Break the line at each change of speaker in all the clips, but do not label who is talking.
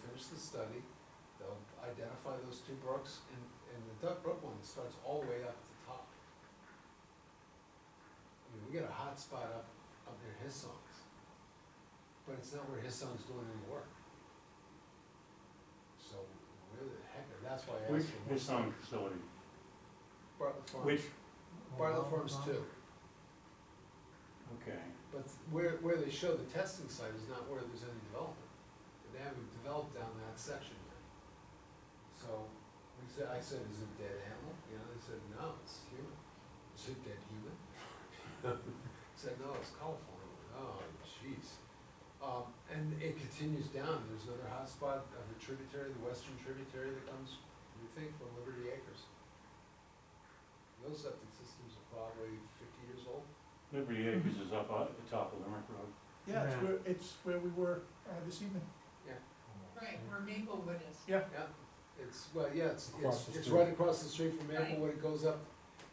finish the study, they'll identify those two brooks, and, and the Duck Brook one starts all the way up at the top. I mean, we got a hot spot up, up near his songs, but it's not where his songs doing any work. So, where the heck, that's why I
Which,
asked for. more
his sewing facility,
Bartlett Farms.
which,
Bartlett Farms too,
okay,
but where, where they show the testing site is not where there's any development. And They haven't developed down that section yet. So, we said, I said, is it dead animal? You know, they said, no, it's human. Is it dead human? Said, no, it's coliform. Oh, jeez. Um, and it continues down, there's another hotspot of the tributary, the western tributary that comes, you think, from Liberty Acres. Those septic systems are probably fifty years old.
Liberty Acres is up at the top of Limerick Road.
Yeah, it's
Yeah.
where, it's where we were uh, this evening.
Right, where Maplewood is.
Yeah.
Yeah, it's, well, yeah, it's,
Across
it's,
the
it's
street.
right across the street from Maplewood, it goes up,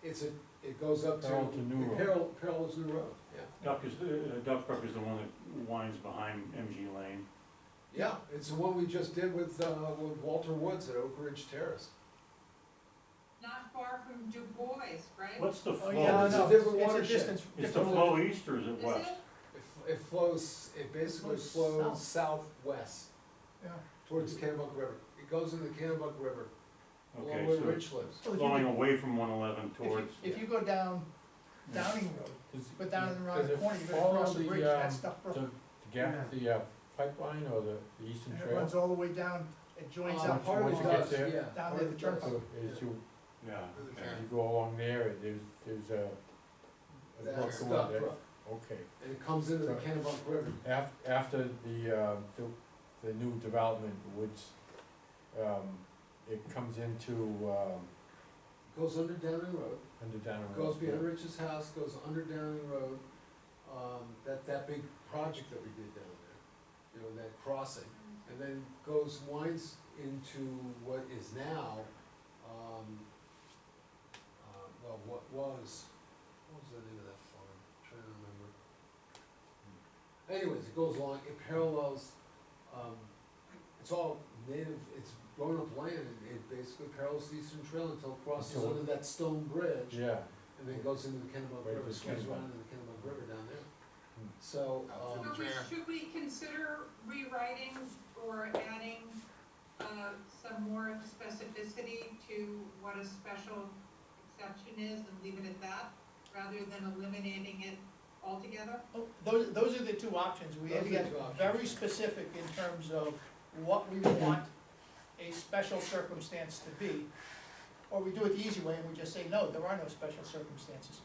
it's a, it goes up to.
Parallel to New
it
Road.
Parallel, parallels New Road, yeah.
Duck is, uh, Duck Brook is the one that winds behind MG Lane.
Yeah, it's the one we just did with, uh, with Walter Woods at Oak Ridge Terrace.
Not far from Du Bois, right?
What's the
Oh, yeah,
flow?
it's a
no,
different
it's
watershed.
distance-
Is the
different
flow east or is it
Is
west?
it?
It f- It flows, it basically
Flows
flows southwest
Yeah,
towards Kennebuck River, it goes into the Kennebuck River, along
Okay,
where
so
Rich lives.
Well, if you
flowing
go-
away from one eleven
if you,
towards.
if you go down Downing Road,
Does-
but down and
does
around the
it
corner, you're gonna
follow
cross the
the,
bridge,
um,
that's Duck Brook.
The gap, the uh, pipeline or the the eastern
And it
trail?
runs all the way down, it joins
Uh,
up.
part of
once
it
you get
does,
there,
yeah,
down
part
there
of
to
it
turn
does.
So as you,
Yeah, okay.
as you go along there, there's, there's a. a brook
That's
going
Duck
there.
Brook,
Okay,
and it comes into the
Right.
Kennebuck River,
af- after the, uh, the, the new development, which, um, it comes into, um,
goes under Downing Road.
under down.
goes behind Rich's house, goes under Downing Road, um, that, that big project that we did down there, you know, that crossing. And then goes, winds into what is now, um, uh, well, what was, what was the name of that farm? Trying to remember. Anyways, it goes along, it parallels, um, it's all native, it's grown up land, and it basically parallels the eastern trail until it crosses
Until-
under that stone bridge.
Yeah,
And then goes into the Kennebunk
Right,
River,
the
swings
Kennebunk.
around into the Kennebunk River down there.
Hmm.
So,
Oh,
So
um,
we- should we consider rewriting or adding, uh, some more specificity to what a special exception is and leave it at that, rather than eliminating it altogether?
Oh, Those, those are the two options, we
Those
have
are
to
the
get
two options.
very specific in terms of what we want a special circumstance to be. Or we do it the easy way and we just say, no, there are no special circumstances.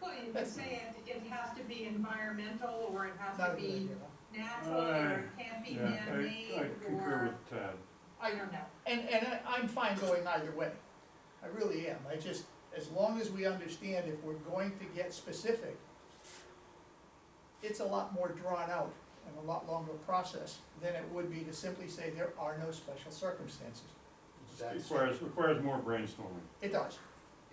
Well, you could
That's-
say it, it has to be environmental, or it has
Not
to
a good
be
idea.
natural, or it can't be
Yeah,
man-made,
I, I concur
or,
with uh, Tad.
I don't know.
And, and I- I'm fine going either way. I really am. I just, as long as we understand if we're going to get specific, it's a lot more drawn out and a lot longer process than it would be to simply say there are no special circumstances.
It
that's,
Requires, requires more brainstorming.
It does.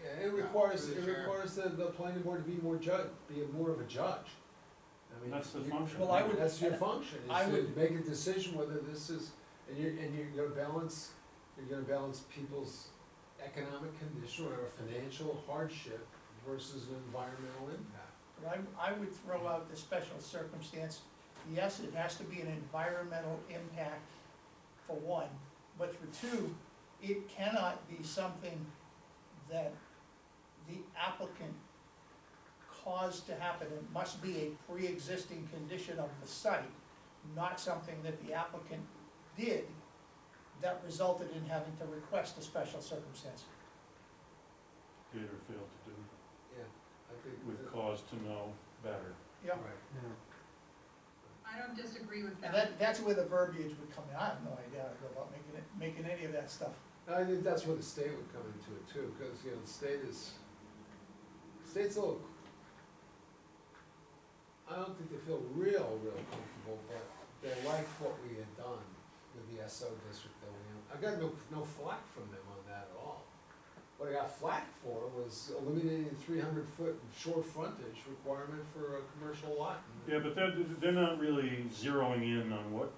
yeah, it requires,
Through
it
the chair.
requires the, the planning board to be more judge, be more of a judge. I mean,
That's the
you-
function.
Well, I would-
That's your function,
I
is to
would-
make a decision whether this is, and you're, and you're gonna balance, you're gonna balance people's economic condition or financial hardship versus an environmental impact.
But I, I would throw out the special circumstance. Yes, it has to be an environmental impact for one, but for two, it cannot be something that the applicant caused to happen. It must be a pre-existing condition of the site, not something that the applicant did that resulted in having to request a special circumstance.
Did or failed to do,
Yeah, I think.
with
that-
cause to know better.
Yeah,
Right.
I don't disagree with
and
that.
that, that's where the verbiage would come in. I have no idea about making it, making any of that stuff.
I think that's where the state would come into it too, because, you know, the state is, state's a little, I don't think they feel real, real comfortable, but they liked what we had done with the SO district that we, I got no, no flack from them on that at all. What I got flack for was eliminating the three hundred foot shore frontage requirement for a commercial lot.
Yeah, but they're, they're not really zeroing in on what